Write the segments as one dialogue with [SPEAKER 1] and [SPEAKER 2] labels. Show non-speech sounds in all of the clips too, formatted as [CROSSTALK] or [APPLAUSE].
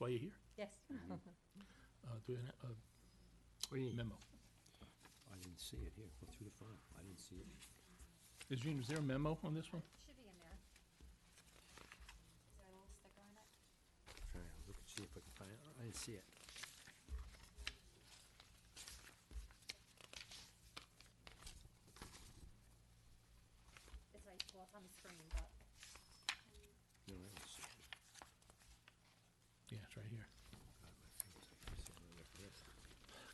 [SPEAKER 1] why you're here,
[SPEAKER 2] Yes.
[SPEAKER 1] uh, do an, a
[SPEAKER 3] What do you need?
[SPEAKER 1] memo.
[SPEAKER 3] I didn't see it here, go through the file, I didn't see it.
[SPEAKER 1] Is Jean, is there a memo on this one?
[SPEAKER 2] Should be in [LAUGHS] there. Is there a little sticker on it?
[SPEAKER 3] Trying to look and see if I can find it, I didn't see it.
[SPEAKER 2] It's right, well, it's on the screen, but.
[SPEAKER 3] No, I didn't see it.
[SPEAKER 1] Yeah, it's right here.
[SPEAKER 3] God, my fingers, I can't see where that is.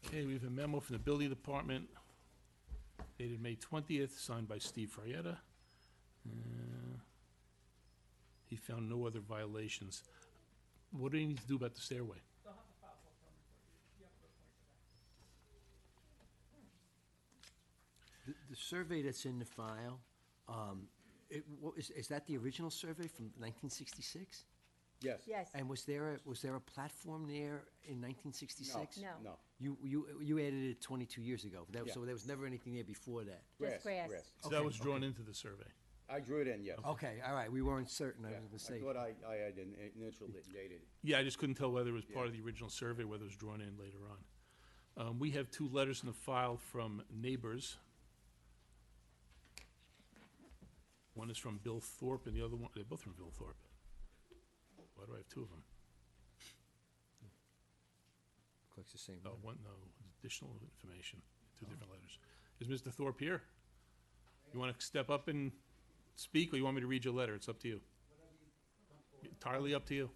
[SPEAKER 1] Okay, we have a memo from the building department dated May twentieth, signed by Steve Frietta. Uh, He found no other violations. What do you need to do about the stairway?
[SPEAKER 3] The, the survey that's in the file, um, it, what, is, is that the original survey from nineteen sixty-six?
[SPEAKER 4] Yes.
[SPEAKER 2] Yes.
[SPEAKER 3] And was there, a was there a platform there in nineteen sixty-six?
[SPEAKER 2] No.
[SPEAKER 4] No.
[SPEAKER 3] You, you, you added it twenty-two years ago, that,
[SPEAKER 4] Yeah.
[SPEAKER 3] so there was never anything there before that?
[SPEAKER 2] Just grass.
[SPEAKER 1] So that
[SPEAKER 3] Okay,
[SPEAKER 1] was drawn into the survey.
[SPEAKER 4] I drew it in, yes.
[SPEAKER 3] Okay, all right, we weren't certain, I
[SPEAKER 4] Yeah.
[SPEAKER 3] was Oh, gonna say.
[SPEAKER 4] I thought I, I had in- initialed it and dated it.
[SPEAKER 1] Yeah, I just couldn't tell whether it was part of the original survey, whether it was drawn in later on. Um, we have two letters in the file from neighbors. One is from Bill Thorpe and the other one, they're both from Bill Thorpe. Why do I have two of them?
[SPEAKER 3] Clicks the same.
[SPEAKER 1] No, Oh, one, no, additional information, two different letters. Is Mr. Thorpe here? You want to step up and speak, or you want me to read your letter? It's up to you. Entirely up to you.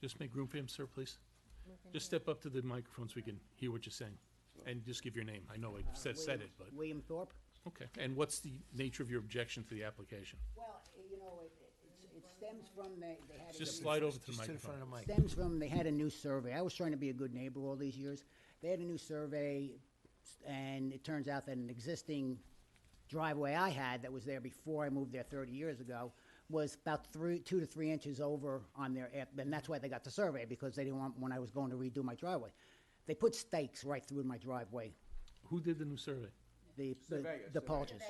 [SPEAKER 1] Just make room for him, sir, please. Just step up to the microphone so we can hear what you're saying, and just give your name. I know I said, said it, but,
[SPEAKER 5] William Thorpe?
[SPEAKER 1] okay. And what's the nature of your objection to the application?
[SPEAKER 5] Well, you know, it, it's- it stems from they, they had. a
[SPEAKER 1] Just
[SPEAKER 5] new-
[SPEAKER 1] slide over to the
[SPEAKER 3] Just to the
[SPEAKER 1] microphone.
[SPEAKER 3] front of the mic.
[SPEAKER 5] Stems from, they had a new survey. I was trying to be a good neighbor all these years. They had a new survey, and it turns out that an existing driveway I had that was there before I moved there thirty years ago was about three, two to three inches over on their, ap- and that's why they got the survey, because they didn't want, when I was going to redo my driveway. They put stakes right through my driveway,
[SPEAKER 1] Who did the new survey?
[SPEAKER 5] the, the,
[SPEAKER 4] Surveyor, surveyor.
[SPEAKER 5] the Polges.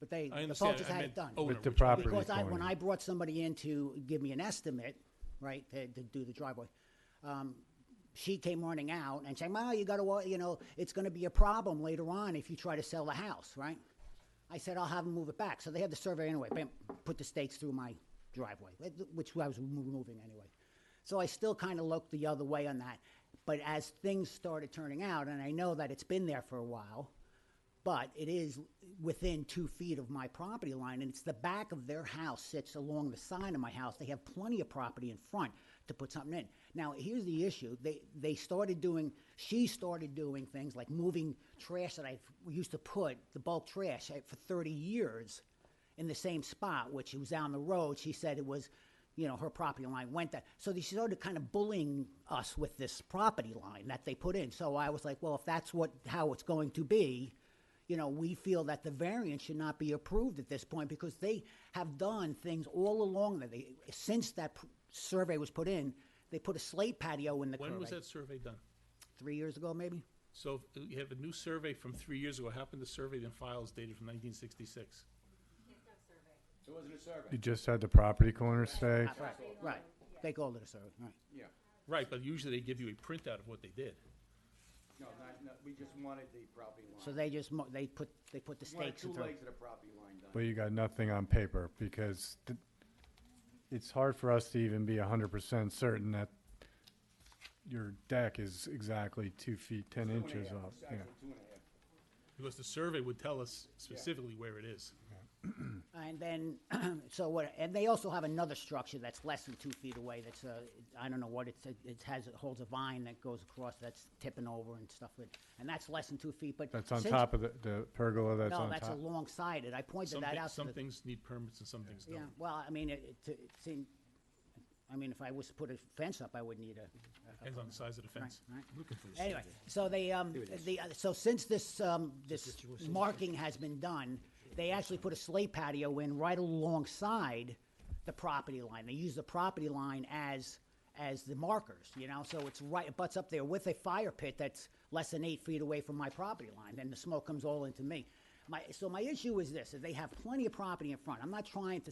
[SPEAKER 5] But they,
[SPEAKER 1] I
[SPEAKER 5] the
[SPEAKER 1] understand.
[SPEAKER 5] Polges
[SPEAKER 1] I
[SPEAKER 5] had
[SPEAKER 1] meant
[SPEAKER 5] it done.
[SPEAKER 1] owner,
[SPEAKER 6] With the
[SPEAKER 1] which one?
[SPEAKER 6] property.
[SPEAKER 5] Because I, when
[SPEAKER 6] corner.
[SPEAKER 5] I brought somebody in to give me an estimate, right, to, to do the driveway, um, she came running out and saying, well, you gotta, wa- you know, it's gonna be a problem later on if you try to sell the house, right? I said, I'll have them move it back. So they had the survey anyway, bam, put the stakes through my driveway, wh- which I was removing anyway. So I still kind of looked the other way on that. But as things started turning out, and I know that it's been there for a while, but it is within two feet of my property line, and it's the back of their house sits along the side of my house. They have plenty of property in front to put something in. Now, here's the issue. They, they started doing, she started doing things like moving trash that I used to put, the bulk trash, I- for thirty years in the same spot, which was down the road. She said it was, you know, her property line went that. So they started kind of bullying us with this property line that they put in. So I was like, well, if that's what, how it's going to be, you know, we feel that the variance should not be approved at this point because they have done things all along that they, since that pr- survey was put in, they put a slate patio in the
[SPEAKER 1] When was
[SPEAKER 5] curve,
[SPEAKER 1] that survey done?
[SPEAKER 5] Three years ago, maybe?
[SPEAKER 1] So if you have a new survey from three years ago. How happened the survey then files dated from nineteen sixty-six?
[SPEAKER 4] There wasn't a
[SPEAKER 6] You
[SPEAKER 4] survey.
[SPEAKER 6] just had the property corner stake.
[SPEAKER 5] Right, right. They called it a survey, right.
[SPEAKER 4] Yeah.
[SPEAKER 1] Right, but usually they give you a printout of what they did.
[SPEAKER 4] No, not, no, we just wanted the property line.
[SPEAKER 5] So they just, mo- they put, they put the
[SPEAKER 4] We Wanted
[SPEAKER 5] stakes
[SPEAKER 4] two
[SPEAKER 5] in through.
[SPEAKER 4] legs of the property line
[SPEAKER 6] But
[SPEAKER 4] done.
[SPEAKER 6] you got nothing on paper because th- it's hard for us to even be hundred percent certain that your deck is exactly two feet, ten
[SPEAKER 4] Two and a
[SPEAKER 6] inches
[SPEAKER 4] half,
[SPEAKER 6] up.
[SPEAKER 4] it's
[SPEAKER 6] uh, Yeah.
[SPEAKER 4] actually two and a half.
[SPEAKER 1] Because the survey would tell us specifically where it is.
[SPEAKER 5] And then, [CLEARS THROAT] so what, and they also have another structure that's less than two feet away, that's uh I I don't know what it's, it- it has, it holds a vine that goes across, that's tipping over and stuff with, and that's less than two feet, but.
[SPEAKER 6] That's on
[SPEAKER 5] since-
[SPEAKER 6] top of the, the pergola that's
[SPEAKER 5] No,
[SPEAKER 6] on
[SPEAKER 5] that's
[SPEAKER 6] top.
[SPEAKER 5] alongside it, I pointed
[SPEAKER 1] Some,
[SPEAKER 5] that
[SPEAKER 1] thi-
[SPEAKER 5] out to
[SPEAKER 1] some
[SPEAKER 5] the,
[SPEAKER 1] things need permits and some things
[SPEAKER 5] yeah,
[SPEAKER 1] don't.
[SPEAKER 5] well, I mean, it, it it seemed, I mean, if I was to put a fence up, I would need a,
[SPEAKER 1] Depends on the size of the fence.
[SPEAKER 5] right.
[SPEAKER 1] Looking for this.
[SPEAKER 5] Anyway, so they, um, the, uh, so since this, um, this marking has been done, they actually put a slate patio in right alongside the property line. They use the property line as, as the markers, you know, so it's right, it butts up there with a fire pit that's less than eight feet away from my property line, then the smoke comes all into me. My, so my issue is this, is they have plenty of property in front. I'm not trying to